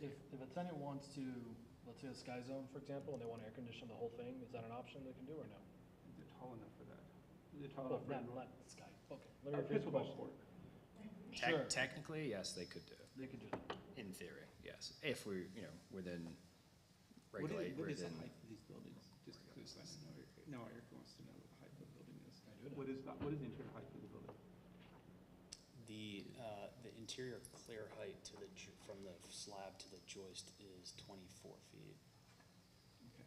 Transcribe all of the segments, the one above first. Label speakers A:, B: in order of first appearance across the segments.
A: if, if a tenant wants to, let's say a sky zone, for example, and they want to air condition the whole thing, is that an option they can do or no?
B: They're tall enough for that. They're tall
C: Uh,
A: Well,
B: enough
A: not,
B: for
A: not sky, okay. Let me
B: a
A: rephrase the
B: pickleball
A: question.
B: court.
D: Tec-
A: Sure.
D: Technically, yes, they could do it,
A: They could do that.
D: in theory, yes, if we, you know, within,
B: What
D: regulate,
B: is, what is the
D: within.
B: height of these buildings? Just because I know, Eric- now Eric wants to know what the height of the building is.
A: I do know.
B: What is, the- what is the interior height of the building?
E: The, uh, the interior clear height to the, ju- from the slab to the joist is 24 feet.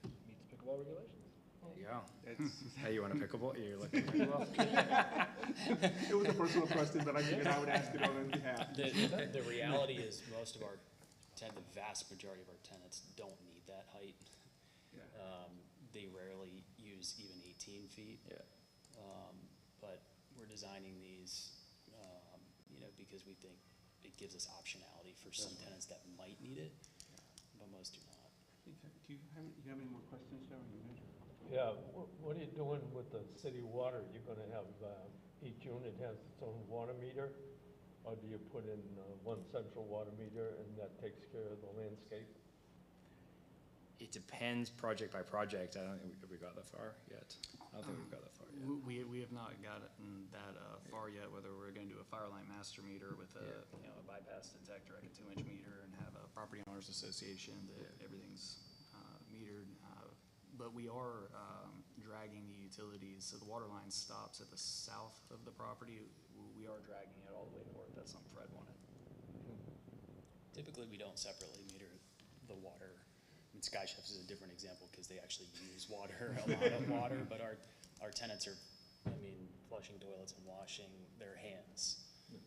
B: Okay.
A: Meets pickleball regulations.
D: There you go.
B: That's,
D: Hey, you want a pickleball? You're looking for pickleball?
B: it was a personal question, but I figured I would ask it on his behalf.
E: The, the reality is, most of our, ten- the vast majority of our tenants don't need that height.
B: Yeah.
E: Um, They rarely use even 18 feet.
D: Yeah.
E: Um, But we're designing these, um, you know, because we think it gives us optionality for some tenants that might need it, but most do not.
B: Do you have, you have any more questions, Joe? You mentioned-
C: Yeah, wh- what are you doing with the city water? You're gonna have, uh, each unit has its own water meter? Or do you put in uh, one central water meter and that takes care of the landscape?
D: It depends project by project. I don't think we, have we got that far yet? I don't think we've got that far yet.
F: We, we have not gotten that uh, far yet, whether we're gonna do a fire line master meter with a, you know, a bypass detector, like a two-inch meter, and have a property owners association that everything's uh, metered. uh, But we are um, dragging the utilities, so the water line stops at the south of the property. We are dragging it all the way north, that's something Fred wanted.
E: Typically, we don't separately meter the water. I mean, Sky Chefs is a different example because they actually use water, a lot of water, but our, our tenants are, I mean, flushing toilets and washing their hands.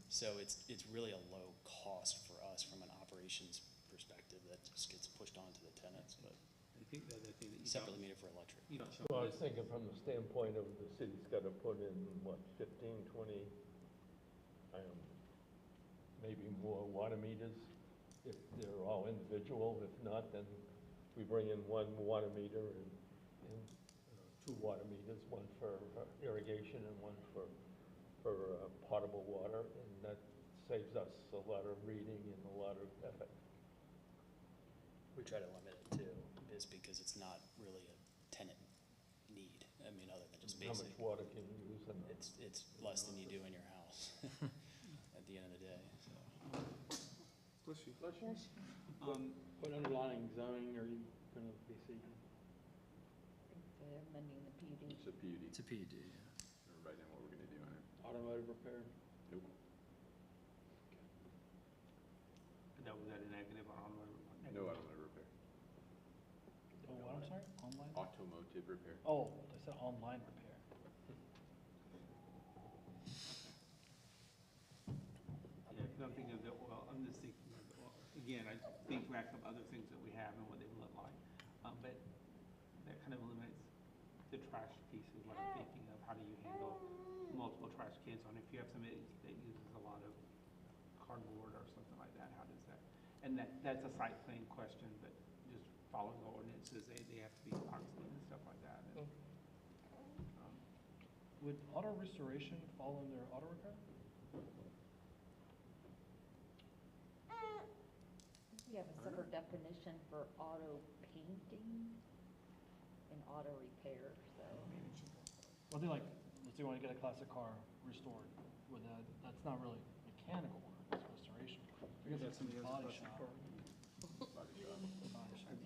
E: So it's, it's really a low cost for us from an operations perspective that just gets pushed onto the tenants, but
B: I think the other thing that you
E: separately
B: don't,
E: meter for electric.
B: you don't show.
C: Well, I was thinking from the standpoint of the city's gotta put in, what, fifteen, twenty, I don't, maybe more water meters? If they're all individual, if not, then we bring in one water meter and, and uh, two water meters, one for irrigation and one for, for uh, potable water, and that saves us a lot of reading and a lot of effort.
E: We try to limit it too, is because it's not really a tenant need, I mean, other than just
C: How
E: basic.
C: much water can you use and
E: It's, it's less than you do in your house at the end of the day, so.
B: Bless you.
G: Yes.
B: Um,
H: What underlying zoning are you going to be seeking?
G: They're amending the PUD.
I: It's a PUD.
D: It's a E PUD, yeah.
I: Right now, what we're gonna do on it.
H: Automotive repair?
I: Nope.
B: that was that a negative or on?
I: No automotive repair.
A: Oh, what, I'm sorry, online?
I: Automotive repair.
A: Oh, I said online repair.
B: Yeah, because I'm thinking of the, well, I'm just thinking of the, oil. again, I think back of other things that we have and what they look like. Um, but that kind of eliminates the trash piece is what I'm thinking of, how do you handle multiple trash cans on, if you have somebody that uses a lot of cardboard or something like that, how does that? And that, that's a site plan question, but just following the ordinances, they, they have to be boxed in and stuff like that. and, um,
A: Would auto restoration fall under auto repair?
G: We have a separate definition for auto painting and auto repair, so.
A: Well, I think like, let's say you want to get a classic car restored, with that, that's not really mechanical work, it's restoration. work.
B: I guess that's something that's a
A: Body
B: question
A: shop,
B: for-
I: Body shop.
A: body shop.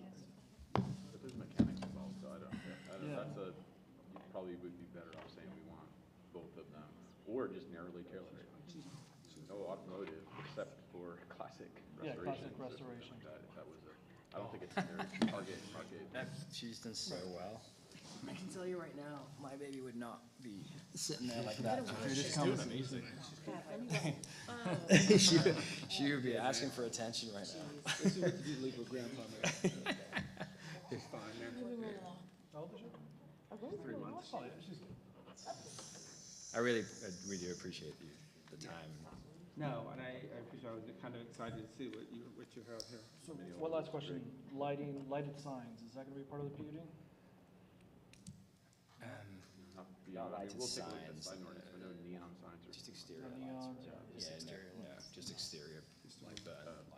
I: But there's mechanics involved, so I don't, I don't,
A: Yeah.
I: that's a, you probably would be better off saying we want both of them, or just narrowly tailored. it. No automotive, except for classic
A: Yeah, classic
I: restorations. or something like
A: restoration.
I: that, If that was a, I don't think it's a very target market.
D: She's done so well. I can tell you right now, my baby would not be sitting there like that.
G: Have anyone-
D: She would- She would be asking for attention right now.
B: This is what you do to leave a grandpa, man. It's fine, man.
A: How old is she?
G: Oh, those are really
A: That's probably- she's-
D: I really, I- we do appreciate you, the time.
B: No, and I, I appreciate, I was kind of excited to see what you, what you have here.
A: So, one last question, lighting, lighted signs, is that gonna be part of the PUD?
D: Um,
I: Not beyond- I
D: Lighted
I: mean, we'll take a look at the
D: signs,
I: sign ordinance, but no neon signs or.
D: Just
A: Or
D: exterior lights.
A: neons, or-
D: Yeah, no, no, just exterior, like the